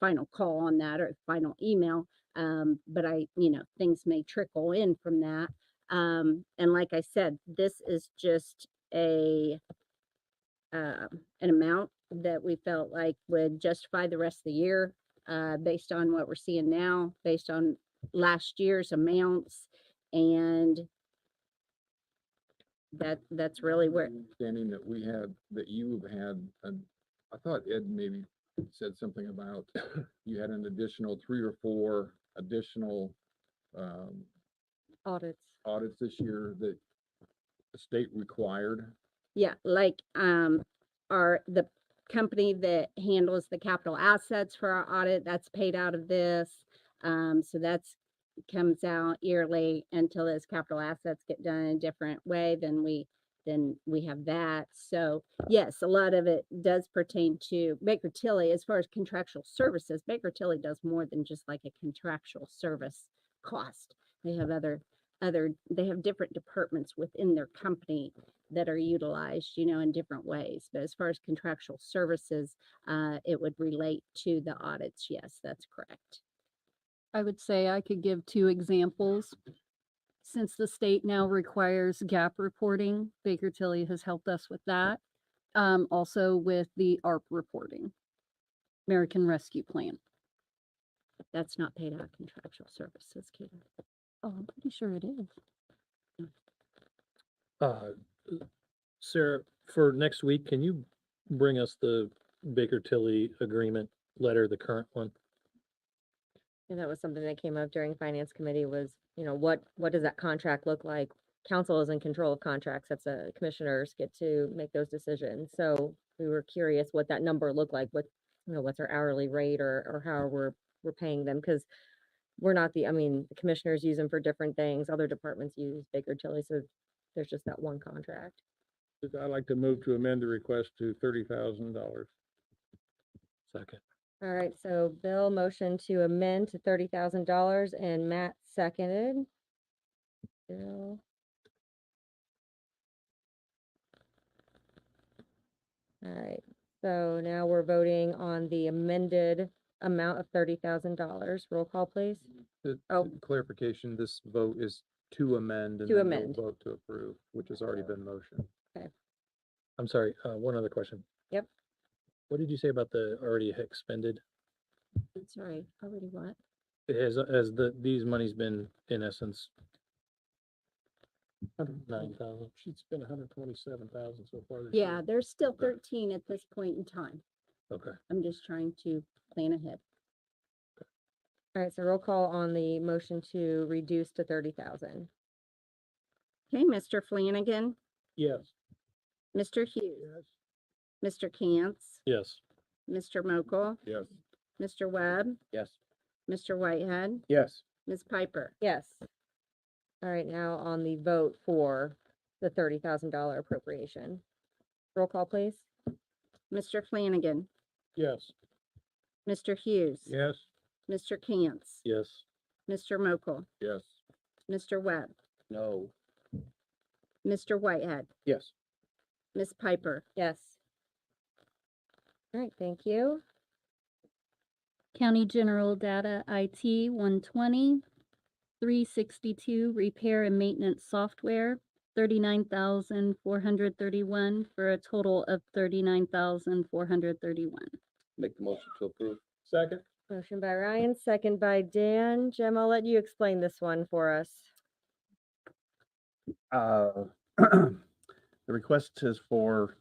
final call on that or final email. Um, but I, you know, things may trickle in from that. Um, and like I said, this is just a uh, an amount that we felt like would justify the rest of the year, uh, based on what we're seeing now, based on last year's amounts. And that, that's really where, Understanding that we had, that you have had, an- I thought Ed maybe said something about you had an additional three or four additional um, audits. audits this year that the state required. Yeah, like, um, our, the company that handles the capital assets for our audit, that's paid out of this. Um, so that's, comes out yearly until those capital assets get done in a different way, then we, then we have that. So yes, a lot of it does pertain to Baker Tilly as far as contractual services. Baker Tilly does more than just like a contractual service cost. They have other, other, they have different departments within their company that are utilized, you know, in different ways. But as far as contractual services, uh, it would relate to the audits. Yes, that's correct. I would say I could give two examples. Since the state now requires gap reporting, Baker Tilly has helped us with that. Um, also with the ARP reporting, American Rescue Plan. That's not paid out contractual services, Katie. Oh, I'm pretty sure it is. Uh, Sarah, for next week, can you bring us the Baker Tilly agreement letter, the current one? And that was something that came up during finance committee was, you know, what, what does that contract look like? Council is in control of contracts. That's a commissioners get to make those decisions. So we were curious what that number looked like, what, you know, what's our hourly rate or, or how we're, we're paying them? Cause we're not the, I mean, the commissioners use them for different things. Other departments use Baker Tilly. So there's just that one contract. I'd like to move to amend the request to thirty thousand dollars. Second. All right. So Bill motioned to amend to thirty thousand dollars and Matt seconded. Bill. All right, so now we're voting on the amended amount of thirty thousand dollars. Roll call, please. Oh. Clarification, this vote is to amend. and then To we'll amend. Vote to approve, which has already been motioned. I'm sorry, uh, one other question. Yep. What did you say about the already expended? I'm sorry, already what? Has, has the, these money's been in essence nine thousand? She's spent a hundred twenty-seven thousand so far this Yeah, there's still thirteen at this point in time. Okay. I'm just trying to plan ahead. All right, so roll call on the motion to reduce to thirty thousand. Okay, Mr. Flanagan, Yes. Mr. Hughes, Mr. Cantz, Yes. Mr. Mokel, Yes. Mr. Webb, Yes. Mr. Whitehead, Yes. Ms. Piper. Yes. All right, now on the vote for the thirty thousand dollar appropriation. Roll call, please. Mr. Flanagan, Yes. Mr. Hughes. Yes. Mr. Cantz, Yes. Mr. Mokel, Yes. Mr. Webb, No. Mr. Whitehead, Yes. Ms. Piper. Yes. All right, thank you. County General Data IT one twenty, three sixty-two, repair and maintenance software, thirty-nine thousand four hundred thirty-one, for a total of thirty-nine thousand four hundred thirty-one. Make the motion to approve. Second? Motion by Ryan, second by Dan. Jim, I'll let you explain this one for us. Uh, The request is for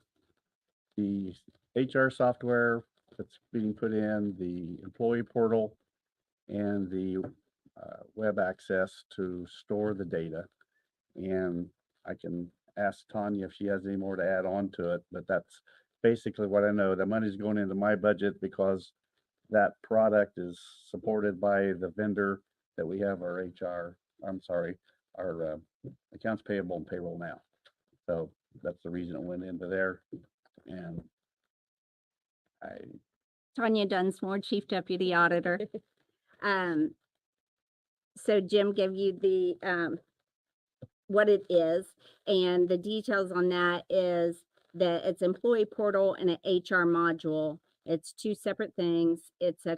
the HR software that's being put in, the employee portal, and the uh, web access to store the data. And I can ask Tanya if she has any more to add on to it, but that's basically what I know. The money's going into my budget because that product is supported by the vendor that we have our HR, I'm sorry, our uh, accounts payable and payroll now. So that's the reason it went into there. And I Tanya Dunsmore, Chief Deputy Auditor. Um, so Jim gave you the, um, what it is, and the details on that is that it's employee portal and an HR module. It's two separate things. It's a